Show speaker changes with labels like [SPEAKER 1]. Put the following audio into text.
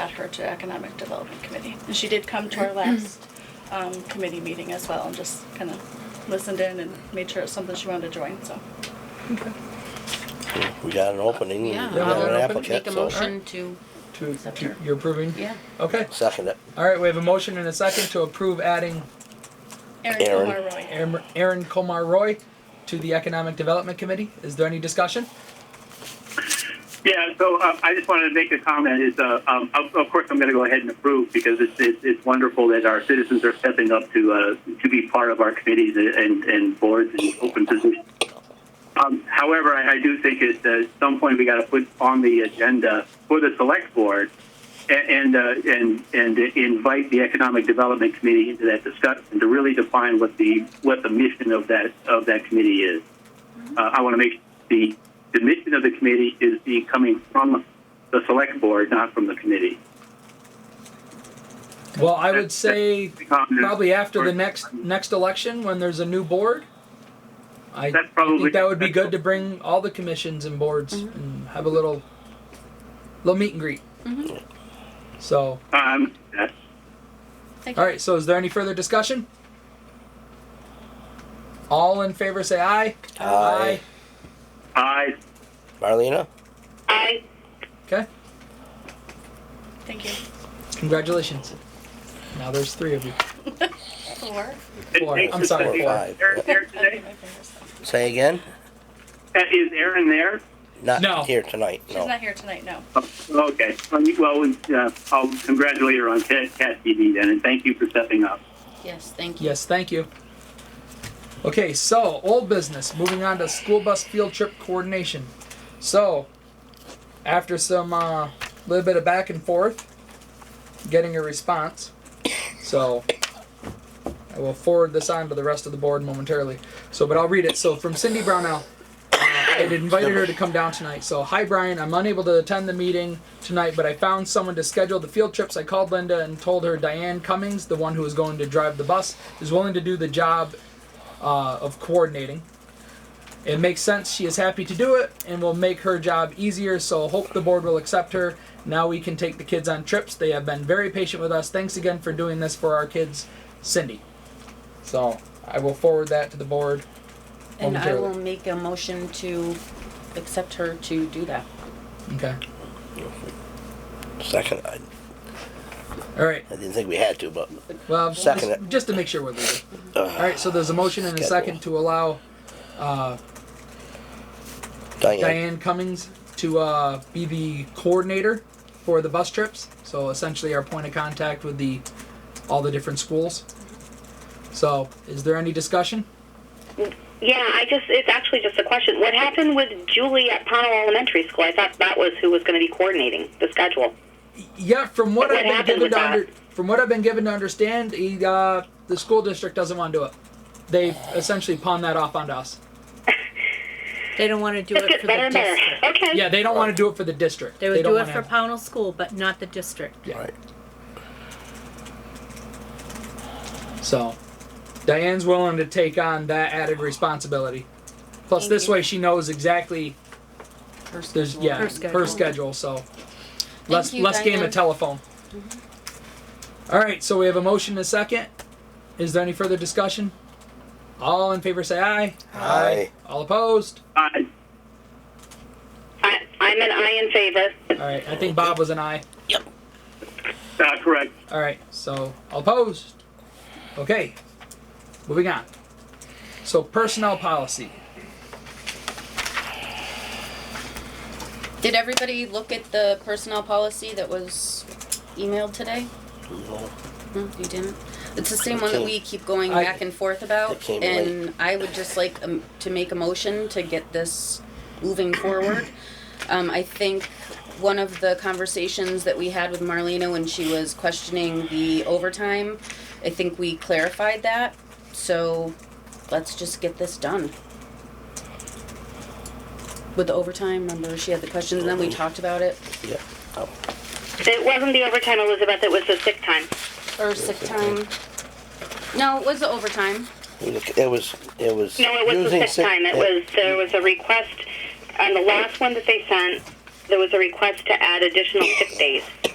[SPEAKER 1] add her to Economic Development Committee. And she did come to our last um, committee meeting as well and just kind of listened in and made sure it's something she wanted to join, so.
[SPEAKER 2] We got an opening, we
[SPEAKER 3] Yeah,
[SPEAKER 2] got
[SPEAKER 3] I'll
[SPEAKER 2] an
[SPEAKER 3] open- make
[SPEAKER 2] applicant,
[SPEAKER 3] a
[SPEAKER 2] so
[SPEAKER 3] motion to,
[SPEAKER 4] To, to, you're approving?
[SPEAKER 3] yeah.
[SPEAKER 4] Okay.
[SPEAKER 2] second it.
[SPEAKER 4] All right, we have a motion and a second to approve adding
[SPEAKER 1] Erin
[SPEAKER 2] Erin.
[SPEAKER 1] Kilmar Roy.
[SPEAKER 4] Aaron Aaron Komar Roy to the Economic Development Committee. Is there any discussion?
[SPEAKER 5] Yeah, so um, I just wanted to make a comment. Is uh, um, of, of course I'm going to go ahead and approve because it's, it's, it's wonderful that our citizens are stepping up to uh, to be part of our committees and, and boards and open positions. Um, however, I, I do think it, that at some point we got to put on the agenda for the select board and and, uh, and and invite the economic development committee into that discussion to really define what the what the mission of that of that committee is. Uh, I want to make the, the mission of the committee is the coming from the select board, not from the committee.
[SPEAKER 4] Well, I would say probably after the
[SPEAKER 5] Or-
[SPEAKER 4] next next election when there's a new board. I I
[SPEAKER 5] That's probably
[SPEAKER 4] think that would be good to bring all the commissions and boards and have a little little meet and greet. So,
[SPEAKER 5] Um, that's-
[SPEAKER 1] Thank you.
[SPEAKER 4] all right. So, is there any further discussion? All in favor, say aye.
[SPEAKER 2] Aye.
[SPEAKER 5] I
[SPEAKER 2] Marlena,
[SPEAKER 4] Okay.
[SPEAKER 1] Thank you.
[SPEAKER 4] Congratulations. Now there's three of you.
[SPEAKER 1] Four.
[SPEAKER 4] Four.
[SPEAKER 5] It takes
[SPEAKER 4] I'm
[SPEAKER 5] us
[SPEAKER 4] sorry,
[SPEAKER 5] to be-
[SPEAKER 4] four.
[SPEAKER 5] Aaron there today?
[SPEAKER 1] She's
[SPEAKER 2] say again?
[SPEAKER 5] Uh, Is Aaron there?
[SPEAKER 4] No.
[SPEAKER 2] Not here tonight, no.
[SPEAKER 1] not here tonight, no.
[SPEAKER 5] Oh, Okay. Well, you- Well, we, uh, I'll congratulate her on Cat, Cat TV then, and thank you for stepping up.
[SPEAKER 3] Yes, thank you.
[SPEAKER 4] Yes, thank you. Okay, so old business. Moving on to school bus field trip coordination. So, after some uh, little bit of back and forth, getting a response. So, I will forward this on to the rest of the board momentarily. So, but I'll read it. So, from Cindy Brownell. I had invited her to come down tonight. So, hi Brian, I'm unable to attend the meeting tonight, but I found someone to schedule the field trips. I called Linda and told her Diane Cummings, the one who is going to drive the bus, is willing to do the job uh, of coordinating. It makes sense. She is happy to do it and will make her job easier. So, hope the board will accept her. Now we can take the kids on trips. They have been very patient with us. Thanks again for doing this for our kids, Cindy. So, I will forward that to the board.
[SPEAKER 3] And I
[SPEAKER 4] momentarily.
[SPEAKER 3] will make a motion to accept her to do that.
[SPEAKER 4] Okay.
[SPEAKER 2] Second, I
[SPEAKER 4] All right.
[SPEAKER 2] I didn't think we had to, but
[SPEAKER 4] Well,
[SPEAKER 2] Second
[SPEAKER 4] just,
[SPEAKER 2] it.
[SPEAKER 4] just to make sure we're legal. All right, so there's a motion and a
[SPEAKER 2] Schedule.
[SPEAKER 4] second to allow uh,
[SPEAKER 2] Diane,
[SPEAKER 4] Diane Cummings to uh, be the coordinator for the bus trips. So essentially, our point of contact with the all the different schools. So, is there any discussion?
[SPEAKER 6] Yeah, I just, it's actually just a question. What happened with Julie at Pownell Elementary School? I thought that was who was going to be coordinating the schedule.
[SPEAKER 4] Yeah, from what
[SPEAKER 6] What
[SPEAKER 4] I've been
[SPEAKER 6] happened
[SPEAKER 4] given
[SPEAKER 6] with
[SPEAKER 4] to
[SPEAKER 6] that?
[SPEAKER 4] under, from what I've been given to understand, he, uh, the school district doesn't want to do it. They essentially pawn that off onto us.
[SPEAKER 7] They don't want to do
[SPEAKER 6] Just
[SPEAKER 7] it
[SPEAKER 6] gets
[SPEAKER 7] for
[SPEAKER 6] better
[SPEAKER 7] the
[SPEAKER 6] and better.
[SPEAKER 7] district.
[SPEAKER 6] Okay.
[SPEAKER 4] Yeah, they don't want to do it for the district.
[SPEAKER 7] They would
[SPEAKER 4] don't
[SPEAKER 7] do it
[SPEAKER 4] wanna
[SPEAKER 7] for
[SPEAKER 4] have-
[SPEAKER 7] Pownell School, but not the district.
[SPEAKER 2] right,
[SPEAKER 4] So, Diane's willing to take on that added responsibility. Plus, this way she knows exactly
[SPEAKER 3] Her
[SPEAKER 4] there's
[SPEAKER 3] schedule.
[SPEAKER 4] yeah her
[SPEAKER 7] Her
[SPEAKER 4] schedule,
[SPEAKER 7] schedule.
[SPEAKER 4] so less
[SPEAKER 3] you,
[SPEAKER 4] less game
[SPEAKER 3] Diane.
[SPEAKER 4] of telephone. All right, so we have a motion and a second. Is there any further discussion? All in favor, say aye.
[SPEAKER 2] Aye.
[SPEAKER 4] All opposed.
[SPEAKER 5] I,
[SPEAKER 6] I, I'm an I in favor.
[SPEAKER 4] All right, I think Bob was an aye.
[SPEAKER 5] uh, correct.
[SPEAKER 4] All right, so all opposed. Okay, moving on. So personnel policy.
[SPEAKER 3] Did everybody look at the personnel policy that was emailed today? No, you didn't? It's the same one that we keep going
[SPEAKER 4] I-
[SPEAKER 3] back and forth about.
[SPEAKER 2] It came late.
[SPEAKER 3] And I would just like um, to make a motion to get this moving forward. Um, I think one of the conversations that we had with Marlena when she was questioning the overtime, I think we clarified that. So let's just get this done. With the overtime, remember she had the questions and then we talked about it.
[SPEAKER 2] yeah. Oh,
[SPEAKER 6] It wasn't the overtime, Elizabeth. It was the sick time.
[SPEAKER 3] Or sick time. No, it was the overtime.
[SPEAKER 2] we look- It was, it was.
[SPEAKER 6] No, it was
[SPEAKER 2] using
[SPEAKER 6] the sick time. It
[SPEAKER 2] yeah.
[SPEAKER 6] was there was a request on the last one that they sent. There was a request to add additional sick days.